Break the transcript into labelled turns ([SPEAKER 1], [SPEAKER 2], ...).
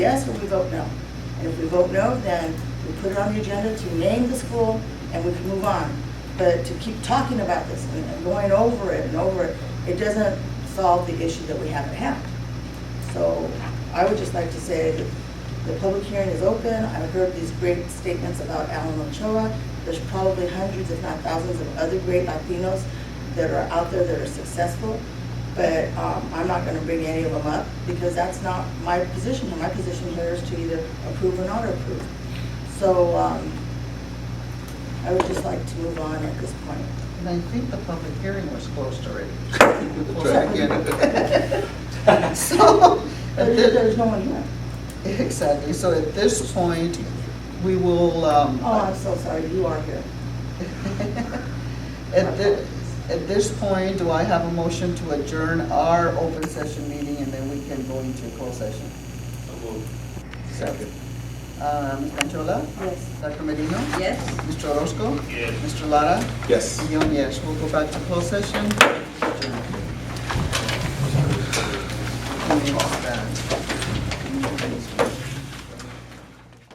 [SPEAKER 1] yes or we vote no. And if we vote no, then we put it on the agenda to name the school and we can move on. But to keep talking about this and and going over it and over it, it doesn't solve the issue that we haven't had. So I would just like to say that the public hearing is open. I've heard these great statements about Alan Ochoa. There's probably hundreds, if not thousands, of other great Latinos that are out there that are successful. But um, I'm not going to bring any of them up because that's not my position. here. My position here is to either approve or not approve. So um, I would just like to move on at this point.
[SPEAKER 2] And I think the public hearing was closed already.
[SPEAKER 1] Try
[SPEAKER 2] again. So, at
[SPEAKER 1] There- There's
[SPEAKER 2] thi-
[SPEAKER 1] no one here.
[SPEAKER 2] exactly, so at this point, we will, um,
[SPEAKER 1] Oh, I'm so sorry. You are here.
[SPEAKER 2] at thi- at this point, do I have a motion to adjourn our open session meeting and then we can go into closed session?
[SPEAKER 3] Second.
[SPEAKER 2] Uh, Ms. Canchola?
[SPEAKER 1] Yes.
[SPEAKER 2] Dr. Merino?
[SPEAKER 4] Yes.
[SPEAKER 2] Mr. Orozco?
[SPEAKER 3] Yes.
[SPEAKER 2] Mr. Lara?
[SPEAKER 3] Yes.
[SPEAKER 2] Young, yes, we'll go back to closed session. Adjourn. Yes, that.